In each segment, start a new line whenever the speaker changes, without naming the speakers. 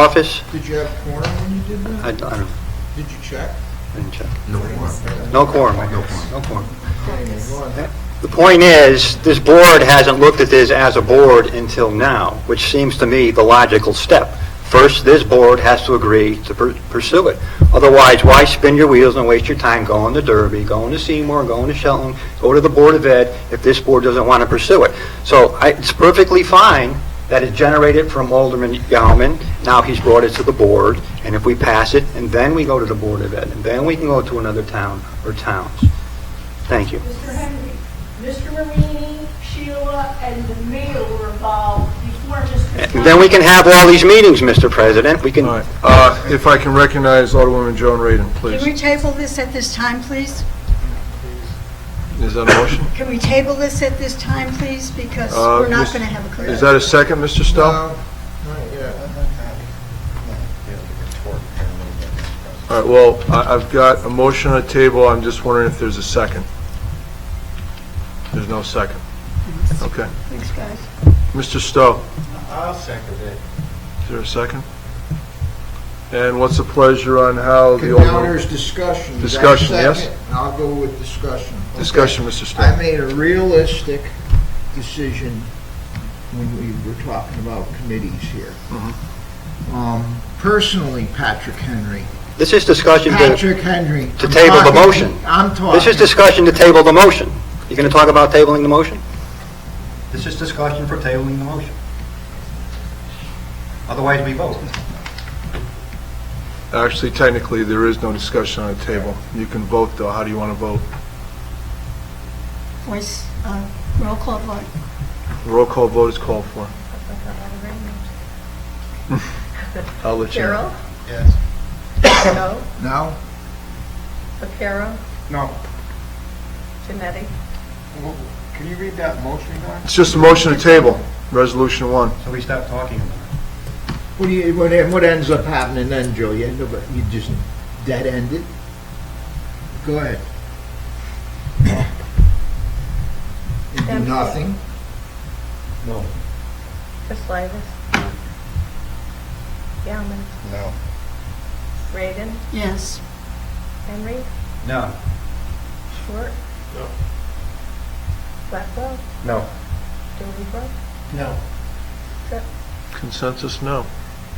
office?
Did you have quorum when you did that?
I I don't know,
Did you check?
didn't check.
No quorum.
No quorum, I
No
guess,
quorum.
no quorum.
Well,
The point is, this board hasn't looked at this as a board until now, which seems to me the logical step. First, this board has to agree to pur- pursue it. Otherwise, why spin your wheels and waste your time going to Derby, going to Seymour, going to Shelton, go to the Board of Ed if this board doesn't want to pursue it? So I- it's perfectly fine that it generated from Alderman Yalman, now he's brought it to the board, and if we pass it, and then we go to the Board of Ed, and then we can go to another town or towns. Thank you.
Mr. Henry, Mr. Marini, Sheila, and the mayor were involved before Mr.
Then we can have all these meetings, Mr. President. We can,
All right, uh, if I can recognize Alderwoman Joan Radin,
Can we
please.
table this at this time, please?
Is that a motion?
Can we table this at this time, please? Because
Uh,
we're not
Miss-
going to have a clear...
Is that a second, Mr. Stowe?
Uh, Not yet.
All right, well, I- I've got a motion on the table, I'm just wondering if there's a second. There's no second. Okay.
Thanks, guys.
Mr. Stowe,
I'll second it.
is there a second? And what's the pleasure on how the
Condowners
Alderman...
discussion. Is that
Discussion, yes.
second? I'll go with discussion. Okay.
Discussion, Mr.
I
Stowe.
made a realistic decision when we were talking about committees here.
Uh-huh.
Um, Personally, Patrick Henry,
this is discussion to,
Patrick Henry.
to
I'm
table the
talking-
motion.
I'm talking.
this is discussion to table the motion. You going to talk about tabling the motion? This is discussion for tabling the motion. Otherwise, we vote.
Actually, technically, there is no discussion on the table. You can vote, though, how do you want to vote?
Voice, uh, roll call vote.
Roll call vote is called for. I'll let you know.
Carol?
Yes.
No.
No?
Vaquero?
No.
Janetti?
Can you read that motion again?
It's just a motion to table, Resolution 1.
So we stop talking about it.
What do you, what, what ends up happening then, Joe? You end up, you just dead end it? Go ahead. You do
Empty.
nothing? No.
Chris Slavis? Yaman?
No.
Raiden?
Yes.
Henry?
No.
Short?
No.
Blackwell?
No.
Dillbeaver?
No.
Consensus, no.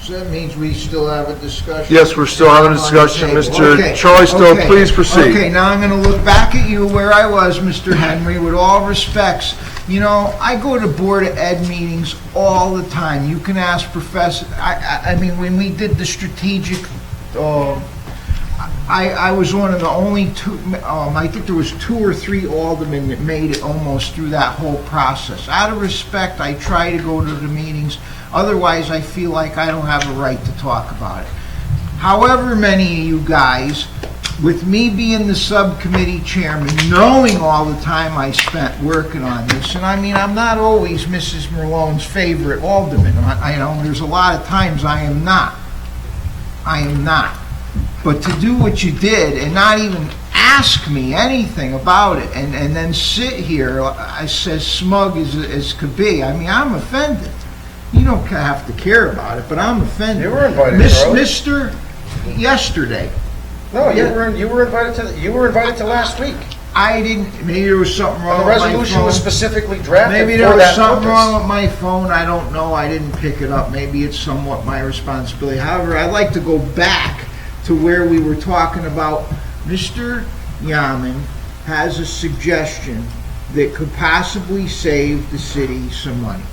So that means we still have a discussion?
Yes, we're still having a discussion.
On the table.
Mr.
Okay,
Charlie Stone,
okay,
please proceed.
Okay, now I'm going to look back at you where I was, Mr. Henry, with all respects. You know, I go to Board of Ed meetings all the time. You can ask Professor, I, I, I mean, when we did the strategic, uh, I, I was one of the only two, um, I think there was two or three aldermen that made it almost through that whole process. Out of respect, I try to go to the meetings, otherwise I feel like I don't have a right to talk about it. However many of you guys, with me being the subcommittee chairman, knowing all the time I spent working on this, and I mean, I'm not always Mrs. Malone's favorite alderman, I, I know, there's a lot of times I am not. I am not. But to do what you did and not even ask me anything about it and, and then sit here, I says smug as, as could be, I mean, I'm offended. You don't ca- have to care about it, but I'm offended.
You were invited,
Miss-
Charlie.
Mr. Yesterday,
No, you
Yeah.
were, you were invited to, you were invited to last week.
I didn't, maybe there was something
The
wrong with Oh, my
resolution was
phone.
specifically drafted
Maybe
for
there was
that
something wrong
purpose.
with my phone, I don't know, I didn't pick it up, maybe it's somewhat my responsibility. However, I'd like to go back to where we were talking about, Mr. Yaman has a suggestion that could possibly save the city some money.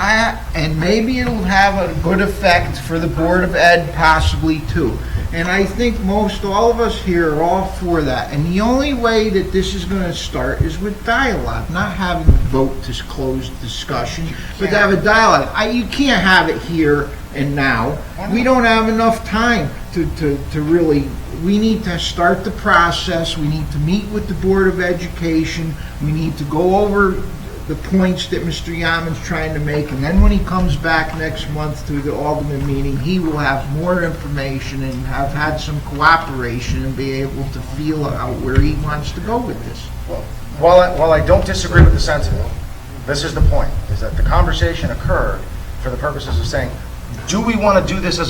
I, and maybe it'll have a good effect for the Board of Ed possibly too. And I think most all of us here are all for that. And the only way that this is going to start is with dialogue, not having a vote to close discussion, but to have a dialogue. I, you can't have it here and now. We don't have enough time to, to, to really, we need to start the process. We need to meet with the Board of Education. We need to go over the points that Mr. Yaman's trying to make, and then when he comes back next month to the Alderman meeting, he will have more information and have had some cooperation and be able to feel out where he wants to go with this.
While I, while I don't disagree with the sentiment, this is the point, is that the conversation occurred for the purposes of saying, do we want to do this as